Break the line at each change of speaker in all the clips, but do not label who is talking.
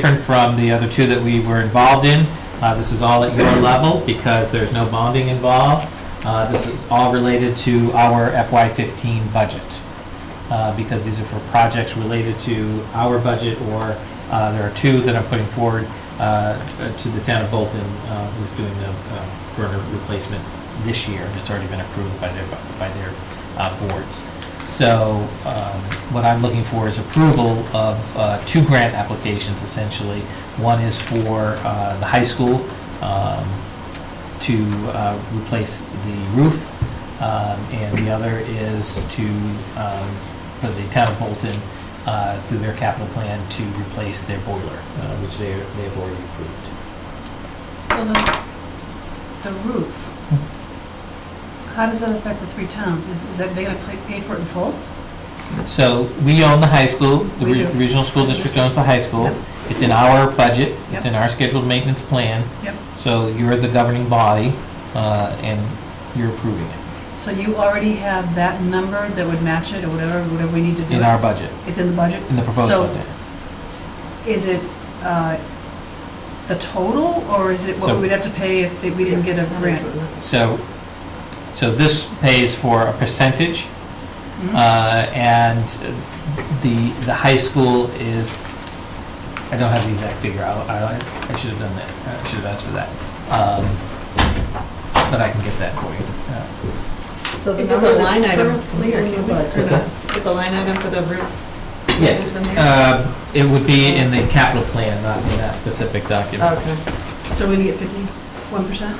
different from the other two that we were involved in. Uh, This is all at your level because there's no bonding involved. Uh, This is all related to our FY15 budget, uh, because these are for projects related to our budget, or uh, there are two that I'm putting forward uh, to the town of Bolton, uh, who's doing the uh, burner replacement this year, and it's already been approved by their, by their uh, boards. So um, what I'm looking for is approval of uh, two grant applications essentially. One is for uh, the high school um, to uh, replace the roof, um, and the other is to, um, for the town of Bolton, uh, through their capital plan, to replace their boiler, uh, which they, they've already approved.
So the, the roof, how does that affect the three towns? Is, is that they gonna pay- pay for it in full?
So we own the high school, the
We
re-
do.
regional school district owns the high school.
Yep.
It's in our budget, it's
Yep.
in our scheduled maintenance plan.
Yep.
So you're the governing body, uh, and you're approving it
So you already have that number that would match it or whatever, whatever we need to do?
in our budget,
It's in the budget?
in the proposed
So-
budget.
Is it, uh, the total or is it what
So-
we would have to pay if they- we didn't get a grant?
So, so this pays for a percentage,
Hmm?
uh, and the, the high school is, I don't have the exact figure, I, I, I should have done that, I should have asked for that. Um, But I can get that for you. Uh,
So the
Even
number
though it's
line item from
currently
here
in
came
the
in.
budget.
What's that?
Put the line item for the roof.
Yes,
It's in there?
uh, it would be in the capital plan, not in that specific document.
Okay.
So we need to get fifty?
One percent?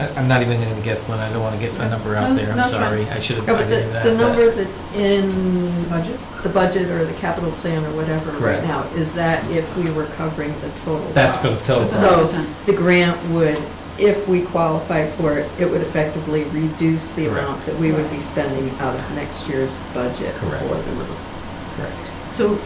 I- I'm not even gonna guess, Lynn, I don't wanna get a number out
That's-
there, I'm
that's fine.
sorry, I should have,
No,
I
but
didn't
the, the
ask
number
that.
that's in
Budget?
the budget or the capital plan or whatever
Correct.
right now, is that if we were covering the total?
That's for the
cost?
total
So it's
So
1%.
the grant would, if we qualify for it, it would effectively reduce the
Correct.
amount that we would be spending out of next year's budget for
Correct.
the roof.
Correct.
So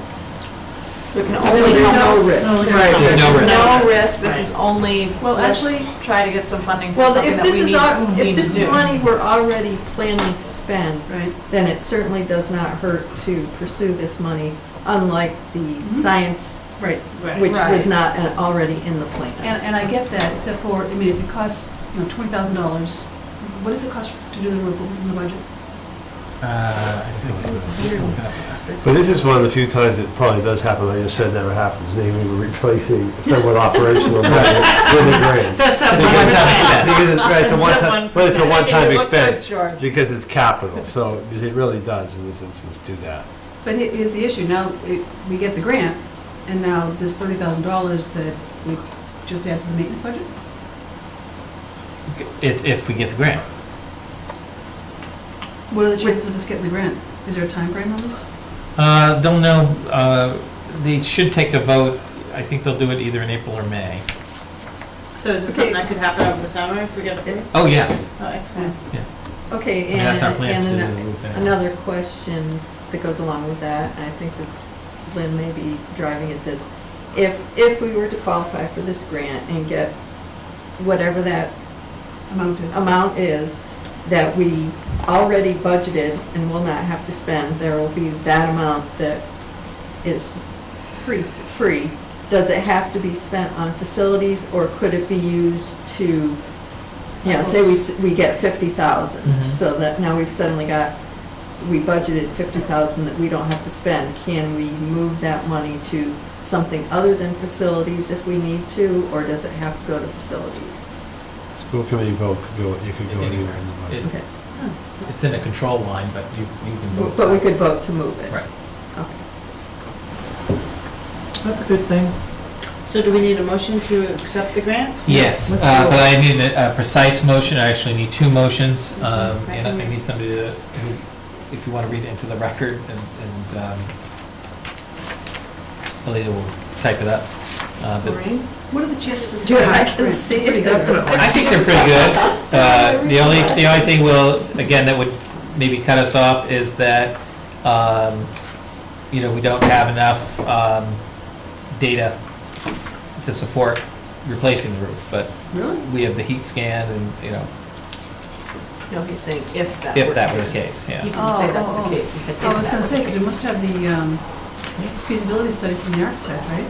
So we can
So
only
there's
count
no-
no risk.
no- Right.
There's no risk.
No risk,
this
this
is
is only,
Well,
let's
actually-
try to get some funding for
Well,
something
if
that we
this is, our-
need,
if
need
this
to
is
do.
money we're already planning to spend,
Right,
then it certainly does not hurt to pursue this money, unlike the science,
right.
which was
Mm-hmm. Right.
not uh, already in the plan.
And, and I get that, except for, I mean, if it costs, you know, twenty thousand dollars, what does it cost to do the roof? What was in the budget?
Uh, I think it was-
But this is one of the few times it probably does happen, I just said never happens, namely we're replacing somewhat operational budget with a grant.
That's not
It's a
one-time percent.
one-time- Because it's, right, it's a one-time, but it's a one-time
It looked
expense,
George.
because it's capital, so, because it really does in this instance do that.
But he- here's the issue, now it- we get the grant, and now this thirty thousand dollars that we just add to the maintenance budget?
If, if we get the grant.
What are the chances of us getting the grant? Is there a time frame on this?
Uh, Don't know, uh, they should take a vote, I think they'll do it either in April or May.
So is
this something that
could happen over the summer if we get
a-
Oh, yeah,
excellent.
I
Okay,
mean, that's our
and,
plan to
and
do
an-
the roof anyway.
another question that goes along with that, I think that Lynn may be driving at this. If, if we were to qualify for this grant and get whatever that
Amount is?
amount is that we already budgeted and will not have to spend, there will be that amount that is
Free.
free. Does it have to be spent on facilities, or could it be used to, you know, say we, s- we get fifty thousand?
Mhm.
So that now we've suddenly got, we budgeted fifty thousand that we don't have to spend. Can we move that money to something other than facilities if we need to, or does it have to go to facilities?
School committee vote could go, you could go anywhere in the budget.
It-
Okay.
It's in a control line, but you, you can vote.
But we could vote to move it.
Right.
Okay.
That's a good thing. So do we need a motion to accept the grant? Let's
Yes, uh,
do it.
but I need a a precise motion, I actually need two motions,
Mhm.
um,
I can
and I
read.
need somebody to, who- if you want to read it into the record, and- and um, Alita will type it up. Uh, but
Maureen?
What are the chances of?
Do it, I
us
can
getting
see
the
it.
grant? Pretty good.
I think they're pretty good. Uh, The only, the only thing will, again, that would maybe cut us off is that, um, you know, we don't have enough um, data to support replacing the roof, but
Really?
we have the heat scan and, you know,
No, he's saying if that were.
if that were the case,
He
yeah.
didn't say
Oh,
that's
oh,
the
oh.
case, he said if
Oh, I was
that
gonna
were
say,
the
because we
case.
must have the, um, feasibility study from the architect, right?